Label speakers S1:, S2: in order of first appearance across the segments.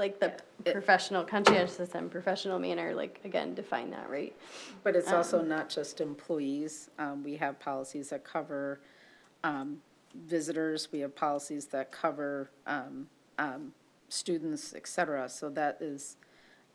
S1: like the professional conscientiousness and professional manner, like, again, define that, right?
S2: But it's also not just employees. Um, We have policies that cover um, visitors. We have policies that cover um, um, students, et cetera. So that is,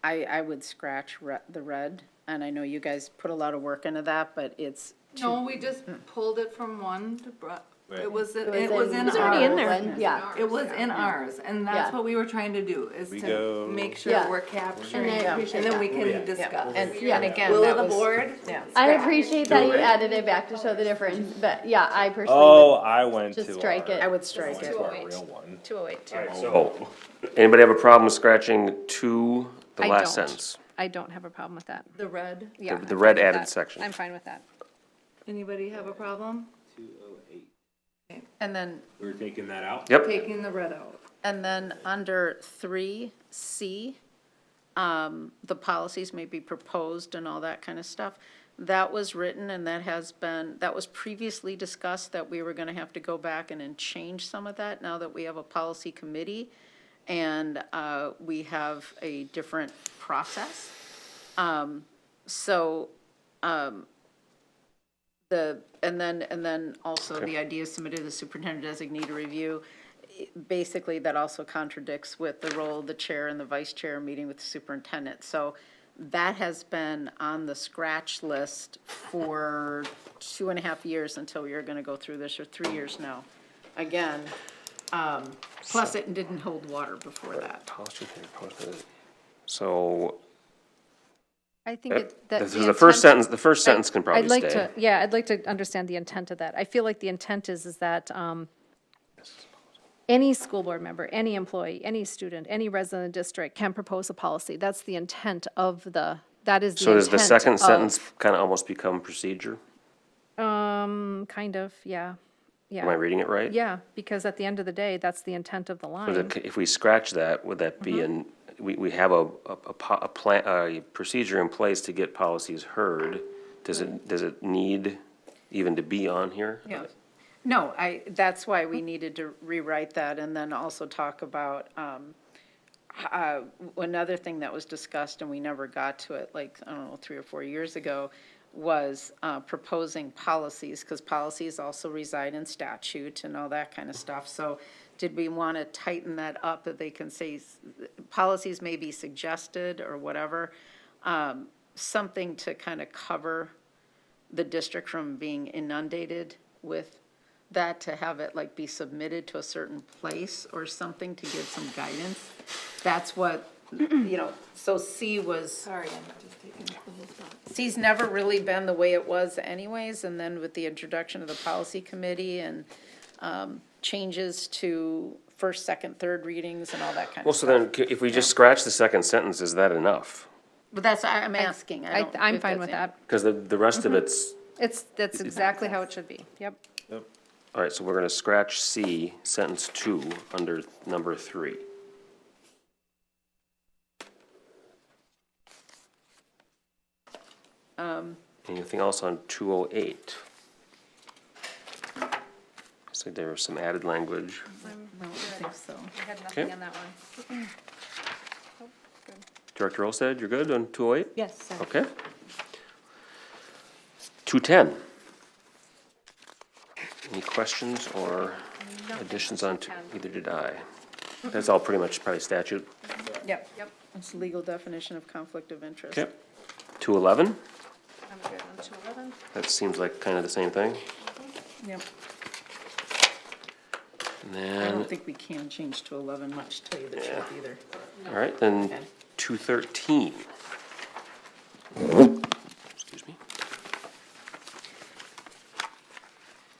S2: I, I would scratch re- the red. And I know you guys put a lot of work into that, but it's,
S3: No, we just pulled it from one to, bro-
S4: Right.
S3: it was, it was in
S1: It's already in
S3: ours.
S1: there, yeah.
S3: It was in ours, and
S1: Yeah.
S3: that's what we were trying to do, is
S4: We
S3: to
S4: go-
S3: make
S1: Yeah.
S3: sure we're capturing,
S1: And I
S3: and
S1: appreciate
S3: then we
S4: Yeah.
S3: can discuss.
S5: And, and again,
S3: Will
S5: that
S3: of the
S5: was,
S3: board?
S5: yeah.
S1: I appreciate that you added it back to show the difference, but yeah, I
S4: Oh,
S1: personally
S4: I went to.
S1: just strike
S4: our-
S1: it.
S2: I would strike
S4: went
S2: it.
S4: to our real one.
S5: Two oh eight.
S6: So, anybody have a problem scratching two, the
S7: I
S6: last
S7: don't.
S6: sentence?
S7: I don't have a problem with that.
S3: The red,
S7: Yeah,
S6: the
S7: I'm
S6: red
S7: fine with
S6: added
S7: that.
S6: section.
S7: I'm fine with that.
S3: anybody have a problem
S2: and then,
S4: We're taking that out?
S6: Yep.
S3: taking the red out?
S2: and then under three C, um, the policies may be proposed and all that kind of stuff. That was written and that has been, that was previously discussed that we were gonna have to go back and then change some of that now that we have a policy committee and, uh, we have a different process. Um, so, um, the, and then, and then also the idea submitted to the superintendent designee to review. Basically, that also contradicts with the role of the chair and the vice chair meeting with the superintendent. So that has been on the scratch list for two and a half years until we are gonna go through this, or three years now. Again, um, plus it didn't hold water before that.
S6: Policy can be posted. So,
S7: I think it- that.
S6: this is the first
S7: intent-
S6: sentence, the first sentence can probably
S7: I'd like
S6: stay.
S7: to, yeah, I'd like to understand the intent of that. I feel like the intent is, is that, um, any school board member, any employee, any student, any resident of the district can propose a policy. That's the intent of the, that is the
S6: So does the
S7: intent
S6: second
S7: of-
S6: sentence kinda almost become procedure?
S7: Um, kind of, yeah,
S6: Am I
S7: yeah.
S6: reading it right?
S7: Yeah, because at the end of the day, that's the intent of the line.
S6: Would it- If we scratch that, would that
S7: Mm-hmm.
S6: be in, we, we have a, a, a po- a plan, a procedure in place to get policies heard? Does it, does it need even to be on here?
S2: Yeah. No, I, that's why we needed to rewrite that and then also talk about, um, h- uh, another thing that was discussed and we never got to it, like, I don't know, three or four years ago, was, uh, proposing policies, because policies also reside in statute and all that kind of stuff. So did we want to tighten that up that they can say, s- policies may be suggested or whatever? Um, something to kind of cover the district from being inundated with that, to have it like be submitted to a certain place or something to give some guidance. That's what, you know, so C was,
S3: Sorry, I'm just taking the whole thought.
S2: C's never really been the way it was anyways, and then with the introduction of the policy committee and um, changes to first, second, third readings and all that kind
S6: Well,
S2: of
S6: so
S2: stuff.
S6: then, c- if we just scratch the second sentence, is that enough?
S2: But that's, I- I'm asking, I
S7: I,
S2: don't.
S7: I'm
S2: if
S7: fine
S2: that's
S7: with
S2: in-
S7: that.
S6: Because the, the rest of it's,
S7: It's, that's exactly how it should be, yep.
S6: all right, so we're gonna scratch C, sentence two, under number three. Anything else on two oh eight? Looks like there was some added language.
S2: No, I think so.
S7: I had
S6: nothing Okay.
S7: on that one.
S6: Director Olsted, you're good on two oh eight?
S7: Yes, sir.
S6: Okay. Two ten. Any questions or additions on, two- either did I. That's all pretty much probably statute.
S2: Yep. Yep. It's legal definition of conflict of interest.
S6: Okay. Two eleven,
S7: I'm good on two eleven.
S6: that seems like kind of the same thing.
S2: Yep.
S6: And
S2: I
S6: then,
S2: don't think we can change to 11 much, to tell you the truth either.
S6: all right, then
S2: Okay.
S6: two thirteen. Excuse me.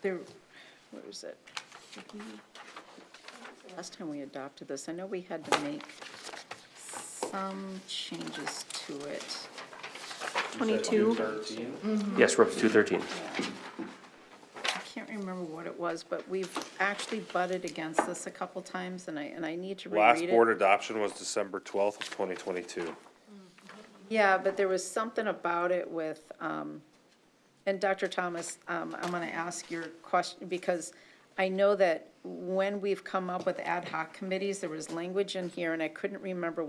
S2: There, where was it? Last time we adopted this, I know we had to make some changes to it.
S7: Twenty-two,
S6: Yes, we're up to two thirteen.
S2: I can't remember what it was, but we've actually butted against this a couple times, and I, and I need to reread
S4: Last
S2: it.
S4: board adoption was December twelfth of twenty twenty-two.
S2: Yeah, but there was something about it with, um, and Dr. Thomas, um, I'm gonna ask your question, because I know that when we've come up with ad hoc committees, there was language in here, and I couldn't remember